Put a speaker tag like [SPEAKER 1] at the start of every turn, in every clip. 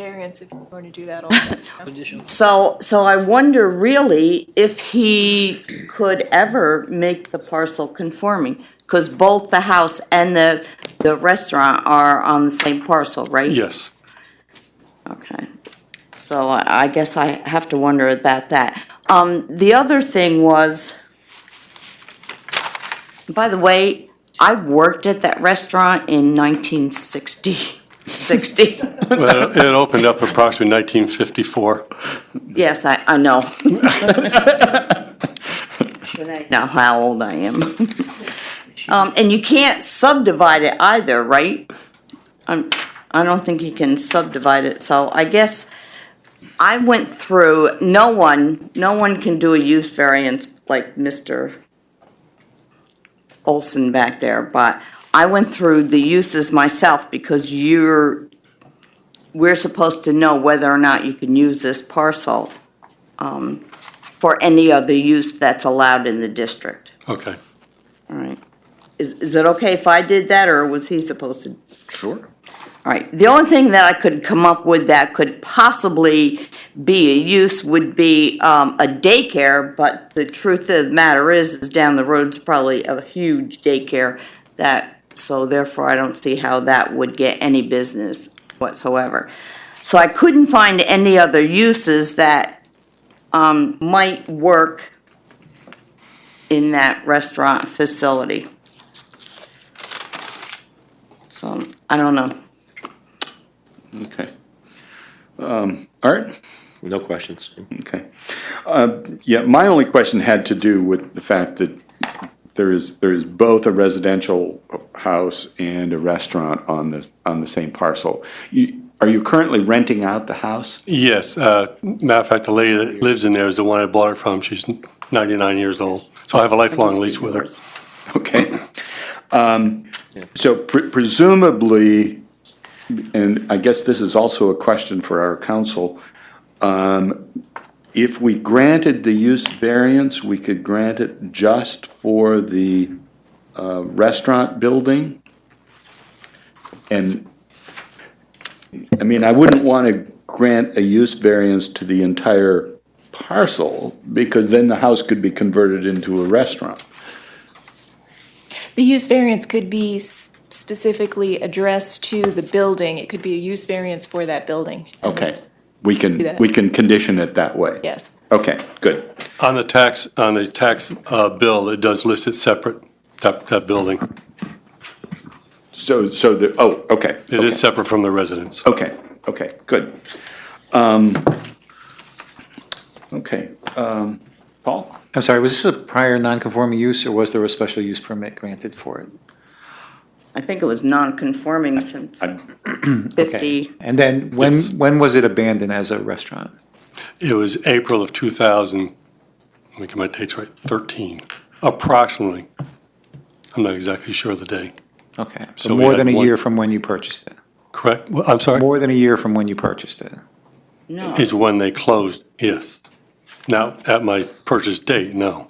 [SPEAKER 1] variance if you were to do that also.
[SPEAKER 2] So, so I wonder really if he could ever make the parcel conforming, because both the house and the, the restaurant are on the same parcel, right?
[SPEAKER 3] Yes.
[SPEAKER 2] Okay, so I I guess I have to wonder about that. Um, The other thing was, by the way, I worked at that restaurant in 1960, 60.
[SPEAKER 3] Well, It opened up approximately 1954.
[SPEAKER 2] Yes, I, I know. But I Know how old I am. Um, And you can't subdivide it either, right? I'm- I don't think you can subdivide it, so I guess I went through, no one, no one can do a use variance like Mr. Olson back there, but I went through the uses myself because you're, we're supposed to know whether or not you can use this parcel um, for any other use that's allowed in the district,
[SPEAKER 3] Okay.
[SPEAKER 2] all right? Is, is it okay if I did that, or was he supposed to?
[SPEAKER 4] Sure.
[SPEAKER 2] All right, the only thing that I could come up with that could possibly be a use would be um, a daycare, but the truth of the matter is, is down the road's probably a huge daycare that, so therefore I don't see how that would get any business whatsoever. So I couldn't find any other uses that um, might work in that restaurant facility. So, I don't know.
[SPEAKER 4] Okay. Um, all right.
[SPEAKER 5] No questions.
[SPEAKER 4] Okay. Uh, Yeah, my only question had to do with the fact that there is, there is both a residential house and a restaurant on the, on the same parcel. You, are you currently renting out the house?
[SPEAKER 3] Yes, uh, matter of fact, the lady that lives in there is the one I bought it from. She's 99 years old, so I have a lifelong lease with her.
[SPEAKER 4] Okay. Um, So pre- presumably, and I guess this is also a question for our council, um, if we granted the use variance, we could grant it just for the uh, restaurant building? And, I mean, I wouldn't want to grant a use variance to the entire parcel, because then the house could be converted into a restaurant.
[SPEAKER 1] The use variance could be s- specifically addressed to the building. It could be a use variance for that building.
[SPEAKER 4] Okay, we can,
[SPEAKER 1] that.
[SPEAKER 4] we can condition it that way?
[SPEAKER 1] Yes.
[SPEAKER 4] Okay, good.
[SPEAKER 3] On the tax, on the tax uh, bill, it does list it separate, that, that building.
[SPEAKER 4] So, so the, oh, okay.
[SPEAKER 3] It is separate from the residence.
[SPEAKER 4] Okay, okay, good. Um, Okay, um, Paul?
[SPEAKER 6] I'm sorry, was this a prior non-conforming use, or was there a special use permit granted for it?
[SPEAKER 2] I think it was non-conforming since
[SPEAKER 4] I-
[SPEAKER 2] fifty.
[SPEAKER 6] And then, when,
[SPEAKER 3] Yes.
[SPEAKER 6] when was it abandoned as a restaurant?
[SPEAKER 3] It was April of 2000, let me get my dates right, 13, approximately. I'm not exactly sure of the day,
[SPEAKER 6] Okay,
[SPEAKER 3] So
[SPEAKER 6] so
[SPEAKER 3] we
[SPEAKER 6] more
[SPEAKER 3] had
[SPEAKER 6] than a
[SPEAKER 3] one-
[SPEAKER 6] year from when you purchased it?
[SPEAKER 3] correct? Well, I'm sorry?
[SPEAKER 6] More than a year from when you purchased it?
[SPEAKER 2] No,
[SPEAKER 3] Is when they closed, yes. Now, at my purchase date, no.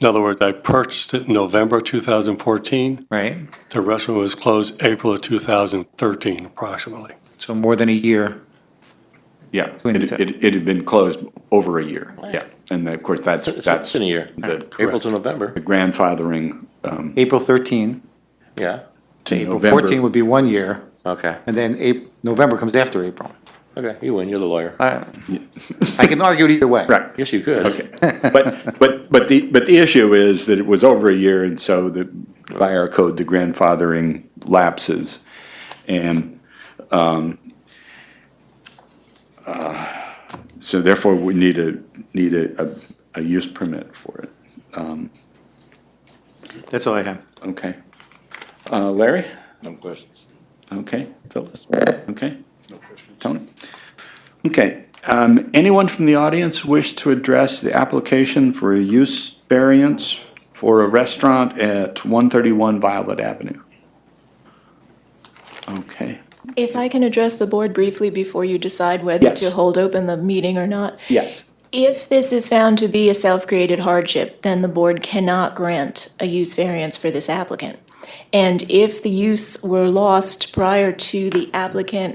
[SPEAKER 3] In other words, I purchased it in November 2014.
[SPEAKER 6] Right?
[SPEAKER 3] The restaurant was closed April of 2013 approximately.
[SPEAKER 6] So more than a year.
[SPEAKER 4] Yeah,
[SPEAKER 6] Twin
[SPEAKER 4] it,
[SPEAKER 6] tip.
[SPEAKER 4] it, it had been closed over a year, yeah. And of course, that's,
[SPEAKER 5] It's
[SPEAKER 4] that's
[SPEAKER 5] it's in a year.
[SPEAKER 4] the-
[SPEAKER 5] April to November,
[SPEAKER 4] the grandfathering
[SPEAKER 6] April 13
[SPEAKER 5] yeah,
[SPEAKER 4] to
[SPEAKER 6] April
[SPEAKER 4] November.
[SPEAKER 6] 14 would be one year,
[SPEAKER 5] okay,
[SPEAKER 6] and then Ap- November comes after April.
[SPEAKER 5] okay, you win, you're the lawyer.
[SPEAKER 6] I I can argue it either way.
[SPEAKER 4] Right,
[SPEAKER 5] Yes, you could.
[SPEAKER 4] Okay, but, but, but the, but the issue is that it was over a year, and so the, by our code, the grandfathering lapses. And, um, uh, so therefore, we need a, need a, a, a use permit for it,
[SPEAKER 6] That's all I have.
[SPEAKER 4] okay? Uh, Larry?
[SPEAKER 5] No questions.
[SPEAKER 4] Okay, Phyllis? Okay? Tony? Okay, um, anyone from the audience wish to address the application for a use variance for a restaurant at one thirty-one Violet Avenue? Okay,
[SPEAKER 1] If I can address the board briefly before you decide whether
[SPEAKER 4] Yes.
[SPEAKER 1] to hold open the meeting or not.
[SPEAKER 4] yes.
[SPEAKER 1] If this is found to be a self-created hardship, then the board cannot grant a use variance for this applicant. And if the use were lost prior to the applicant